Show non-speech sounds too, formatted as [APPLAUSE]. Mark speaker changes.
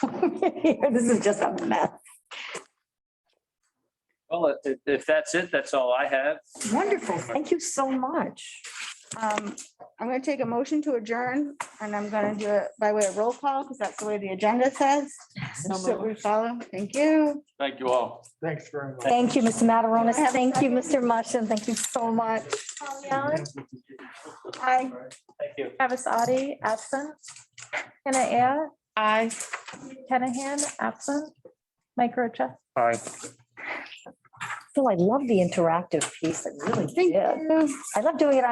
Speaker 1: [LAUGHS] This is just a mess.
Speaker 2: Well, if, if that's it, that's all I have.
Speaker 1: Wonderful. Thank you so much.
Speaker 3: Um, I'm gonna take a motion to adjourn and I'm gonna do it by way of roll call because that's the way the agenda says. So we follow. Thank you.
Speaker 2: Thank you all.
Speaker 4: Thanks very much.
Speaker 1: Thank you, Mr. Mataronis. Thank you, Mr. Mushin. Thank you so much.
Speaker 3: Hi.
Speaker 2: Thank you.
Speaker 5: Avasadi, absent. Hannah Aye. Kenahan, absent. Mike Rocha.
Speaker 2: Bye.
Speaker 1: Phil, I love the interactive piece. I really
Speaker 3: Thank
Speaker 1: did.
Speaker 3: you.
Speaker 1: I love doing it on